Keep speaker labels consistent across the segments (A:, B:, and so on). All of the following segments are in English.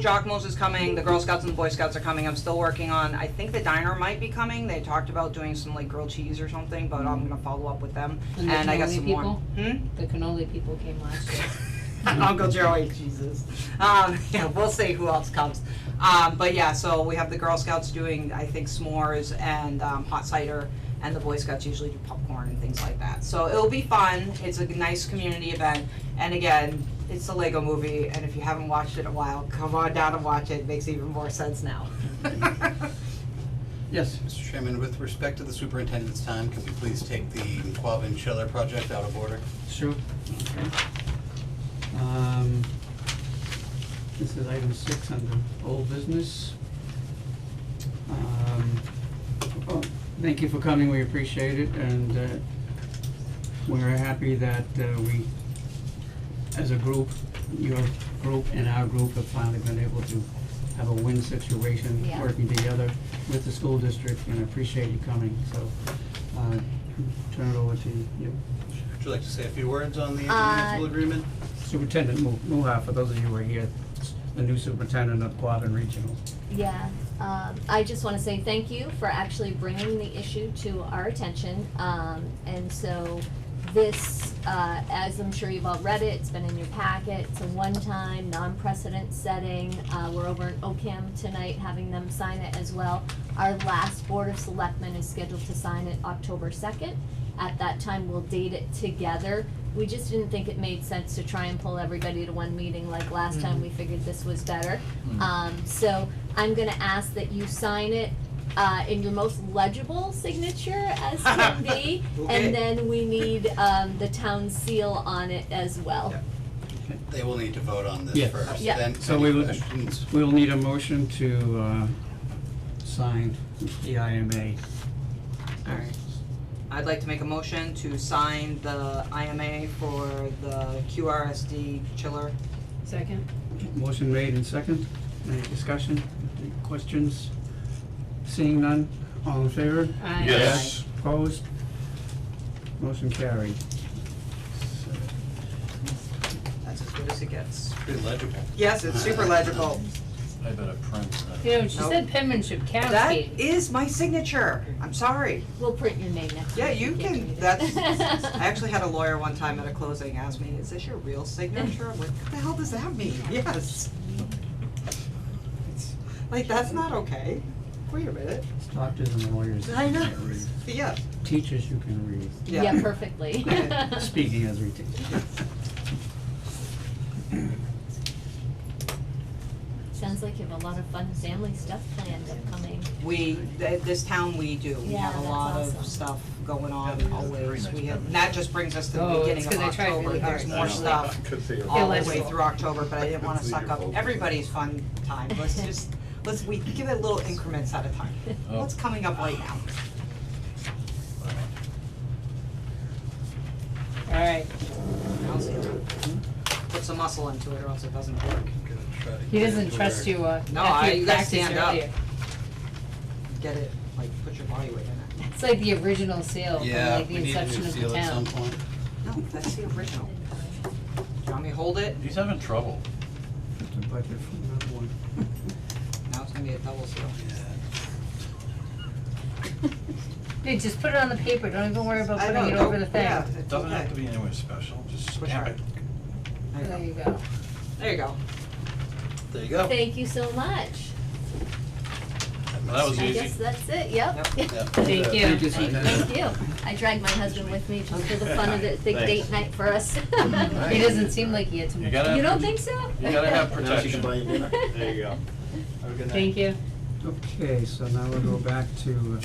A: Jockmos is coming, the Girl Scouts and the Boy Scouts are coming, I'm still working on, I think the diner might be coming, they talked about doing some like grilled cheese or something, but I'm gonna follow up with them,
B: And the
A: and I got
B: cannoli
A: some more.
B: people?
A: Hmm?
B: The cannoli people came last year.
A: Uncle Joey, Jesus. Um, yeah, we'll see who else comes. Um, but yeah, so we have the Girl Scouts doing, I think, s'mores and um, hot cider, and the Boy Scouts usually do popcorn and things like that. So it'll be fun. It's a nice community event, and again, it's the Lego Movie. And if you haven't watched it in a while, come on down and watch it. It makes even more sense now.
C: Yes.
D: Mr. Chairman, with respect to the superintendent's time, can we please take the McQuabbin Schiller project out of order?
C: Sure. Okay. Um, This is item six under old business. Um, oh, Thank you for coming, we appreciate it, and uh, we're happy that uh, we, as a group, your group and our group have finally been able to have a win situation,
B: Yeah.
C: working together with the school district, and appreciate you coming, so uh, turn it over to you.
D: Would you like to say a few words on the
E: Uh,
D: intermunicipal agreement?
C: Superintendent Mu- Muha, for those of you who are here, s- the new superintendent of Quabbin Regional.
E: Yeah, um, I just wanna say thank you for actually bringing the issue to our attention, um, and so this, uh, as I'm sure you've all read it, it's been in your packet, it's a one-time, non-precedent setting, uh, we're over in OCAM tonight, having them sign it as well. Our last Board of Selectmen is scheduled to sign it October second, at that time, we'll date it together. We just didn't think it made sense to try and pull everybody to one meeting like last time, we figured this was better. Um, so I'm gonna ask that you sign it, uh, in your most legible signature as can be.
A: Okay.
E: And then we need, um, the town seal on it as well.
D: Yeah. They will need to vote on this
C: Yes.
D: first,
E: Yeah.
D: then
C: So we
D: any
C: will-
D: questions?
C: We will need a motion to uh, sign the IMA.
A: All right. I'd like to make a motion to sign the IMA for the QRSD chiller.
B: Second?
C: Motion made and second. Any discussion, any questions? Seeing none, all in favor?
B: Aye.
F: Yes.
C: Opposed? Motion carried.
A: That's as good as it gets.
D: Pretty legible.
A: Yes, it's super legible.
F: I better print that.
B: You know, she
A: Nope.
B: said penmanship counts,
A: That
B: Katie.
A: is my signature. I'm sorry.
E: We'll print your name next
A: Yeah,
E: time
A: you
E: give me
A: can,
E: the-
A: that's, I actually had a lawyer one time at a closing ask me, is this your real signature? I'm like, what the hell does that mean? Yes. It's Like, that's not okay. Wait a minute.
C: Doctors and lawyers.
A: I know.
C: can't read.
A: Yeah.
C: Teachers, you can read.
E: Yeah, perfectly.
C: Speaking as we teach.
E: Sounds like you have a lot of fun family stuff planned upcoming.
A: We, th- this town, we do. We
E: Yeah,
A: have a
E: that's
A: lot
E: awesome.
A: of stuff going
F: Yeah,
A: on
F: we have very
A: always.
F: nice
A: We have,
F: memories.
A: and that just brings us to the
B: Oh, it's
A: beginning of
B: 'cause I tried
A: October.
B: really
A: There's
B: hard.
A: more stuff all the way through October, but I didn't wanna
F: Let's
A: suck
F: leave
A: up
F: your focus.
A: everybody's fun time. Let's just, let's, we give it little increments at a time.
F: Oh.
A: What's coming up right now?
B: Alright,
A: I'll see you. Put some muscle into it or else it doesn't work.
D: Gonna try to
B: he
D: get
B: doesn't
D: it to
B: trust
D: where-
B: you, uh,
A: No, I-
B: after
A: you
B: you
A: gotta
B: practiced earlier.
A: stand up. Get it, like, put your body weight in it.
B: It's like the original seal from
D: Yeah,
B: like
D: we
B: the
D: need a new
B: inception of the
D: seal at some
B: town.
D: point.
A: No, that's the original. Do you want me to hold it?
F: He's having trouble.
C: The budget for another one.
A: Now it's gonna be a double seal.
B: Dude, just put it on the paper, don't even worry about putting it over the thing.
A: Yeah, it's
F: Doesn't
A: okay.
F: have to be anywhere special, just
A: Push
F: stamp
A: hard.
F: it.
A: There you
B: There
A: go.
B: you go.
A: There you go.
D: There you go.
E: Thank you so much.
F: That was
E: I
F: easy.
E: guess that's it, yep.
B: Thank you.
C: Thank you, Suzanne.
E: Thank you. I dragged my husband with me just for the fun of it, big date night for us.
B: He doesn't seem like he had too
F: You
B: much.
F: gotta,
E: You don't
F: have-
E: think so?
F: you gotta have
G: Now she
F: protection.
G: can buy you dinner. There you go. Have a good night.
B: Thank you.
C: Okay, so now we'll go back to,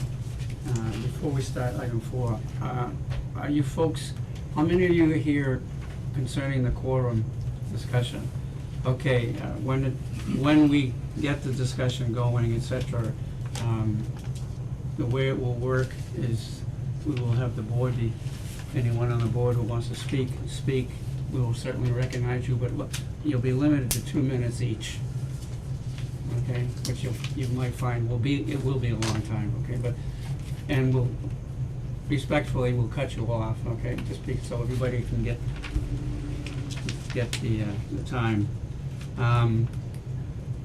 C: uh, before we start item four, uh, are you folks, how many of you are here concerning the quorum discussion? Okay, uh, when, it- when we get the discussion going, et cetera, um, the way it will work is we will have the board be, anyone on the board who wants to speak, speak. We will certainly recognize you, but look, you'll be limited to two minutes each okay, which you, you might find will be, it will be a long time, okay, but, and we'll, respectfully, we'll cut you off, okay, just be, so everybody can get, get the, uh, the time. Um,